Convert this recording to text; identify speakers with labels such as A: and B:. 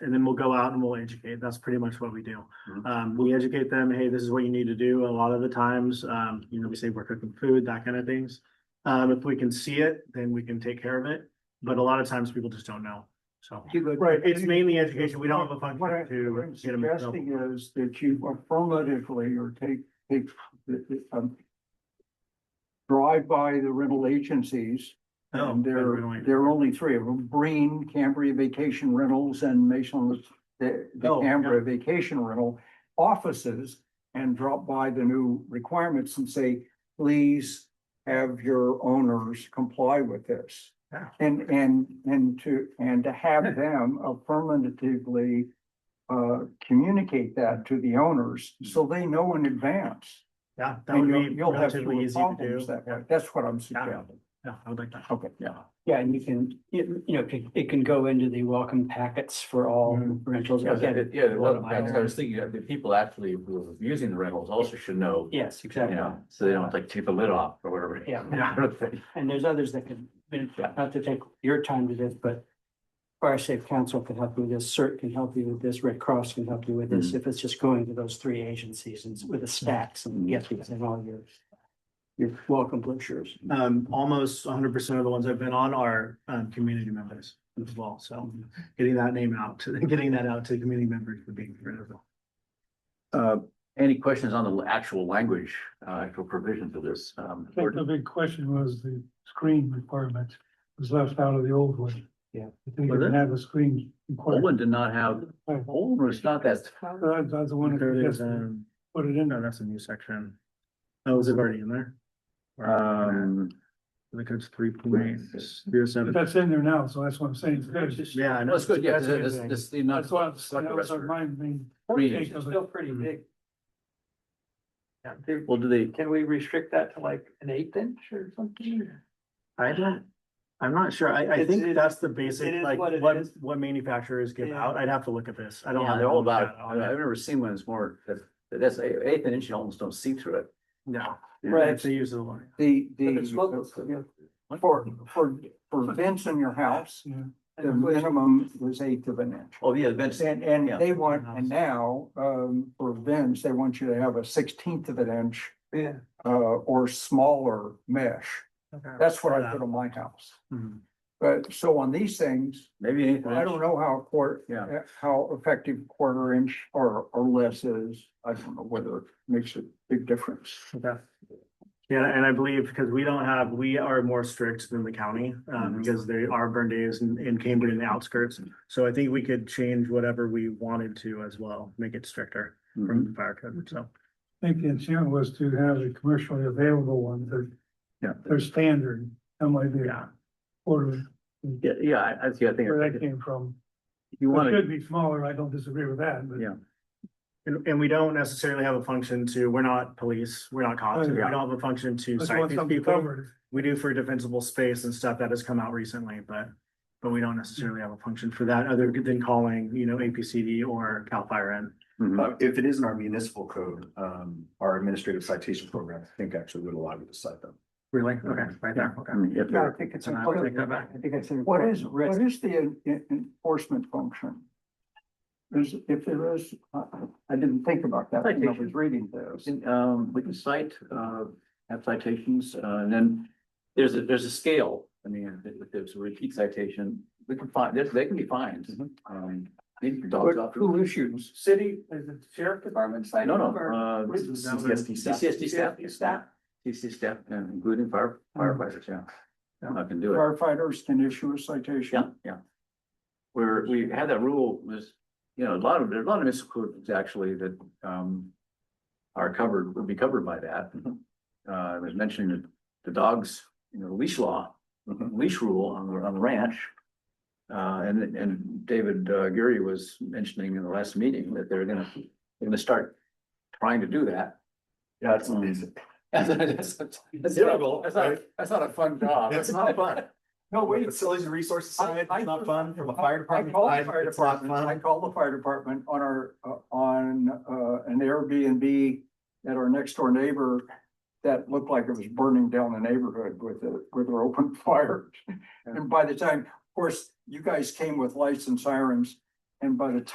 A: and then we'll go out and we'll educate. That's pretty much what we do.
B: Mhm.
A: Um, we educate them, hey, this is what you need to do. A lot of the times, um, you know, we say we're cooking food, that kind of things. Um, if we can see it, then we can take care of it. But a lot of times people just don't know. So,
B: You go-
C: Right,
A: it's mainly education. We don't have a function
C: What I-
A: to
C: what I'm
A: get 'em in trouble.
C: Suggesting is that you are affirmatively or take, take, the- the, um. Drive by the rental agencies
A: Oh,
C: and there,
A: we're going-
C: there are only three of them, Breen, Cambria Vacation Rentals and Mason, the, the
A: Oh, yeah.
C: Cambria Vacation Rental offices. And drop by the new requirements and say, please have your owners comply with this.
A: Yeah.
C: And, and, and to, and to have them affirmatively uh, communicate that to the owners, so they know in advance.
A: Yeah, Hmm. that
C: And
A: would
C: you'll,
A: be
C: you'll have
A: relatively
C: fewer
A: easy to do.
C: problems that
A: Yeah,
C: way. That's what I'm suggesting.
A: Yeah, I would like that.
C: Okay.
A: Yeah.
D: Yeah, and you can, you you know, it can- it can go into the welcome packets for all
C: Mhm.
D: rentals.
B: Yeah,
D: Again,
B: the- yeah, the
D: one of
B: one-
D: my
B: that's what I was
D: own-
B: thinking, that the people actually who are using the rentals also should know, you
D: Yes, exactly.
B: know, so they don't like take the lid off or whatever.
D: Yeah.
A: Yeah.
D: And there's others that can, not to take your time with this, but Fire Safe Council can help you with this, CERT can help you with this, Red Cross can help you with this, if it's just going to those three agencies and with the stacks and yes, and all your your welcome brochures.
A: Um, almost hundred percent of the ones I've been on are, um, community members as well, so getting that name out, to getting that out to the community members would be critical.
B: Uh, any questions on the actual language, uh, actual provisions of this? Um,
E: I think the big question was the screen requirement was left out of the old one.
D: Yeah.
E: I think
B: Was
E: you
B: it?
E: can have a screen requirement.
B: Poland did not have, Poland was not that,
E: That's that's the one
A: There
E: that
A: it is,
E: just
A: um,
E: put it in
A: no,
E: there.
A: that's a new section. Oh, is it already in there?
B: um,
A: I think it's three point zero
E: But
A: seven.
E: That's in there now, so that's what I'm saying. It's good.
A: Yeah, I know.
B: that's good, yeah, this,
A: That's-
B: this, this, not,
E: That's why, that
B: like the rest
E: was
B: of it.
E: my main.
B: Three.
E: take of it.
D: pretty
A: big.
B: well, do they,
D: Can we restrict that to like an eighth inch or something?
A: I don't, I'm not sure. I, I
D: It's-
A: think
D: it-
A: that's the
D: it
A: basic,
D: is
A: like,
D: what it
A: what,
D: is.
A: what manufacturers give
D: Yeah.
A: out. I'd have to look at this. I don't.
D: Yeah,
A: have
B: they're all
A: that
B: about, I've
A: on it.
B: never seen one that's more, that, that's eighth inch, you almost don't see through it.
A: No.
C: Right.
A: It's the use of the line.
C: The,
D: But it's local,
C: the, For, for, for vents in your house,
E: Yeah.
C: the minimum was eighth of an inch.
B: Oh, yeah, that's,
C: And, and
B: Yeah.
C: they want, and now, um, for vents, they want you to have a sixteenth of an inch,
D: Yeah.
C: uh, or smaller mesh. That's what I put on my house.
A: Mhm.
C: But, so on these things,
B: maybe eighth
C: I
B: inch,
C: don't know how quarter,
B: yeah.
C: how effective quarter inch or, or less is. I don't know whether it makes a big difference.
A: Okay. Yeah, and I believe because we don't have, we are more strict than the county, um,
B: Mhm.
A: because they are burn days in, in Cambridge and the outskirts. So I think we could change whatever we wanted to as well, make it stricter
B: Mhm.
A: from the fire code, so.
E: I think the intent was to have the commercially available ones, their,
B: Yeah.
E: their standard, some way they
A: Yeah.
E: order
B: Yeah, yeah, I, I see, I think,
E: where that
B: if
E: came from.
B: you
E: It
B: wanna,
E: should be smaller, I don't disagree with that, but.
B: Yeah.
A: And, and we don't necessarily have a function to, we're not police, we're not cops, we
E: Yeah.
A: don't have a function to
E: Let's
A: cite
E: want
A: these
E: something
A: people.
E: covered.
A: We do for defensible space and stuff that has come out recently, but, but we don't necessarily have a function for that other than calling, you know, APCD or Cal Fire in.
B: Mhm.
F: Uh, if it is in our municipal code, um, our administrative citation program, I think actually would allow you to cite them.
A: Really? Okay, right there, okay.
B: I mean, if
D: Yeah, I
B: they're-
D: think it's
A: Then I would
D: important.
A: take that back.
D: I think it's an
C: What is,
D: important
C: what
D: risk.
C: is the en- en- enforcement function? Is, if there is, I, I didn't think about that when I was reading this.
B: In, um, we can cite, uh, have citations, uh, and then there's a, there's a scale. I mean, if if there's a repeat citation, we can find, they, they can be fined. Um, maybe your dog's off.
C: Who issues?
D: City, is it sheriff department side?
B: No, no, uh,
F: CCSD staff.
B: CCSD staff, Mm-hmm. CC staff, and including fire firefighters, yeah. I can do it.
C: Firefighters can issue a citation.
B: Yeah, yeah. Where we had that rule was, you know, a lot of, there are a lot of misquotes actually that, um, are covered, would be covered by that.
F: Mm-hmm.
B: Uh, I was mentioning the, the dogs, you know, leash law,
F: Mm-hmm.
B: leash rule on the, on the ranch. Uh, and, and David uh, Geary was mentioning in the last meeting that they're gonna, they're gonna start trying to do that.
F: Yeah,
B: it's amazing. That's, that's, that's terrible. That's not, that's not a fun job.
F: It's not fun.
C: No, wait,
F: Facilities and resources
C: I-
F: side,
C: I-
F: it's not fun from a fire
C: I
F: department.
C: called the
F: side,
C: fire
F: it's not
C: department, I
F: fun.
C: called the fire department on our, uh, on, uh, an Airbnb at our next door neighbor that looked like it was burning down the neighborhood with a, with an open fire. And by the time, of course, you guys came with lights and sirens. And by the time